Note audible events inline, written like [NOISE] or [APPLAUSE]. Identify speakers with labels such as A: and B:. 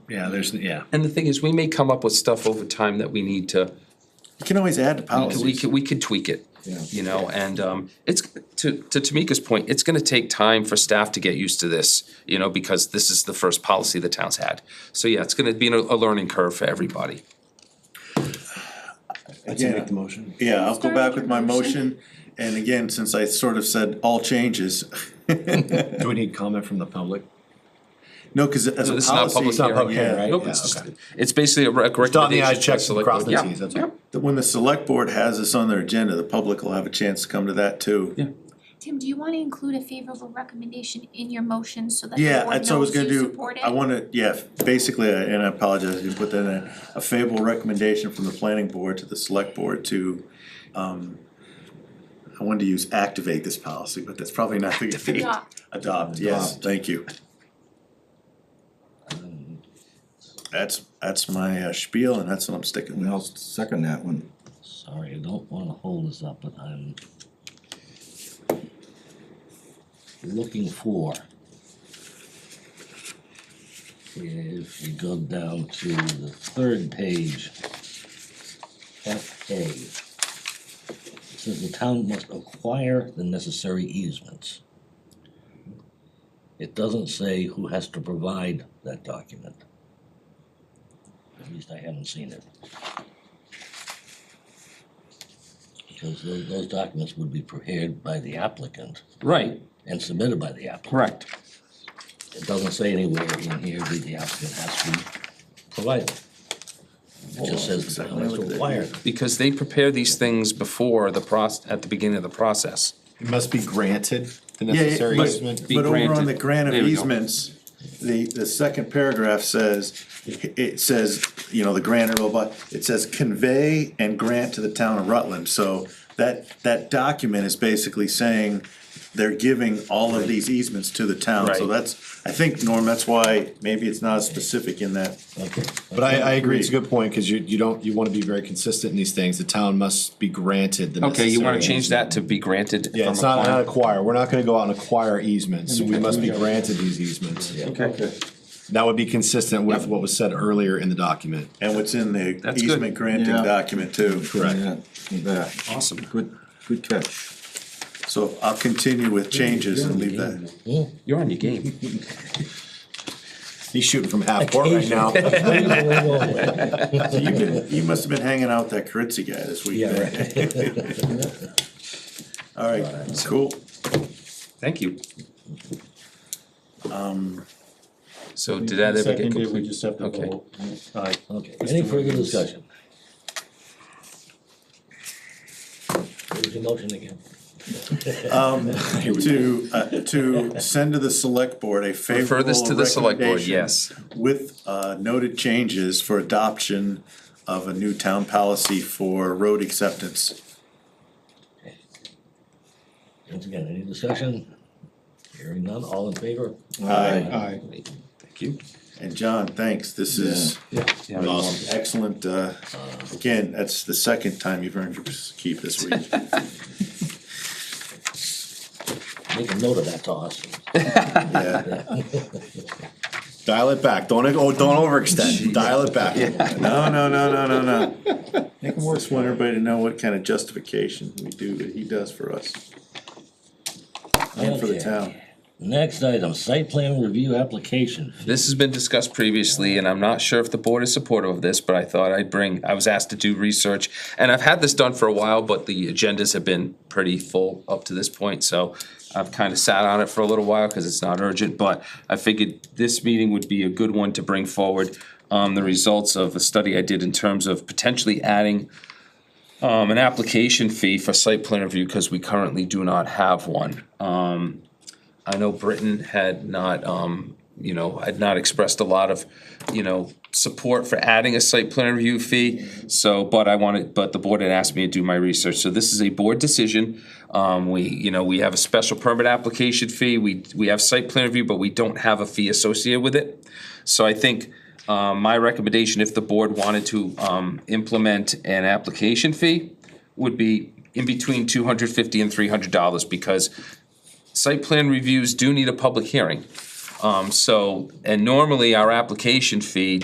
A: Yeah, there's, yeah.
B: And the thing is, we may come up with stuff over time that we need to,
C: You can always add to
B: we
C: policies.
B: could, we could tweak it. You know, and um, it's, to, to Tamika's point, it's gonna take time for staff to get used to this, you know, because this is the first policy the town's had. So yeah, it's gonna be a, a learning curve for everybody.
A: Let's make the motion.
C: Yeah, I'll go
D: Start
C: back
D: with
C: with my
D: your motion.
C: motion, and again, since I sort of said all changes,
A: Do we need comment from the public?
C: no, cause as a
B: This is not public
C: policy.
B: hearing.
A: public
C: yeah.
A: hearing, right?
B: Nope,
A: Yeah,
B: it's just,
A: okay.
B: it's basically a rec- recommendation.
A: Dot the i's, check the
B: to select
A: cross
B: board.
A: the
B: Yeah,
A: t's, that's
B: yeah.
A: all.
C: that When the select board has this on their agenda, the public will have a chance to come to that too.
D: Tim, do you wanna include a favorable recommendation in your motion so that the
C: Yeah,
D: board
C: that's what I was
D: knows
C: gonna
D: you
C: do,
D: support it?
C: I wanna, yeah, basically, I- and I apologize, if you put that in, there, a favorable recommendation from the planning board to the select board to, um, I wanted to use activate this policy, but that's probably not the.
D: Adopt.
C: [LAUGHS] Adopt, yes, thank you. That's, that's my uh, spiel, and that's what I'm sticking
E: And
C: with.
E: I'll second that one.
F: Sorry, I don't wanna hold this up, but I'm looking for if you go down to the third page, F A. It says the town must acquire the necessary easements. It doesn't say who has to provide that document. At least I haven't seen it. Because those, those documents would be prepared by the applicant
B: Right,
F: and submitted by the applicant.
B: correct.
F: It doesn't say anywhere in here that the applicant has to provide them. It just says the town has to acquire them.
B: Because they prepare these things before the process, at the beginning of the process.
A: It must be granted, the
C: Yeah, yeah,
A: necessary
C: but-
A: easement.
B: Be
C: But over on
B: granted.
C: the grant of
B: There we go.
C: easements, the, the second paragraph says, it says, you know, the grant or blah, blah, it says convey and grant to the town of Rutland, so that, that document is basically saying they're giving all of these easements to the town, so
B: Right.
C: that's, I think, Norm, that's why maybe it's not specific in that.
F: Okay.
A: But I, I agree, it's a good point, cause you, you don't, you wanna be very consistent in these things, the town must be granted the
B: Okay,
A: necessary.
B: you wanna change
A: easement.
B: that to be granted from
A: Yeah, it's not, not
B: acquiring?
A: acquire, we're not gonna go out and acquire easements, so we must be granted these easements.
B: Okay.
A: That would be consistent with what was said earlier in the document.
C: And what's in the
B: That's good.
C: easement granting
E: Yeah.
C: document too.
E: Yeah, that.
B: Awesome.
E: Good, good catch.
C: So I'll continue with changes and leave that.
F: Yeah.
B: You're on your
F: [LAUGHS]
B: game.
A: He's shooting from half court right
B: [LAUGHS]
A: now.
C: So you've been, you must have been hanging out with that Caritzy guy this week.
F: Yeah,
C: then. All right, cool.
B: Thank you.
C: Um,
B: So did that ever get
G: Seconded, we
B: completed?
G: just have to
B: Okay.
G: vote. Aye.
F: Okay, any further discussion? What was your motion again?
C: Um,
G: [LAUGHS]
C: To, uh, to send to the select board a favorable
B: Refer this to the select board,
C: recommendation
B: yes.
C: With, uh, noted changes for adoption of a new town policy for road acceptance.
F: Once again, any discussion? Hearing none, all in favor?
C: Aye.
G: Aye.
B: Thank you.
C: And John, thanks, this is um, excellent, uh, again, that's the second time you've earned your keep
G: [LAUGHS]
C: this week.
F: Make a note of that to us.
C: Yeah,
A: Dial it back, don't, oh, don't overextend, dial it back.
C: no, no, no, no, no, no. I just want everybody to know what kind of justification we do, that he does for us. And for the
F: Okay.
C: town.
F: Next item, site plan review application.
B: This has been discussed previously, and I'm not sure if the board is supportive of this, but I thought I'd bring, I was asked to do research. And I've had this done for a while, but the agendas have been pretty full up to this point, so I've kind of sat on it for a little while because it's not urgent, but I figured this meeting would be a good one to bring forward. Um, the results of a study I did in terms of potentially adding um, an application fee for site plan review because we currently do not have one. Um, I know Britain had not, um, you know, had not expressed a lot of, you know, support for adding a site plan review fee. So, but I wanted, but the board had asked me to do my research. So this is a board decision. Um, we, you know, we have a special permit application fee. We, we have site plan review, but we don't have a fee associated with it. So I think, um, my recommendation, if the board wanted to, um, implement an application fee, would be in between two hundred fifty and three hundred dollars, because site plan reviews do need a public hearing. Um, so, and normally our application fee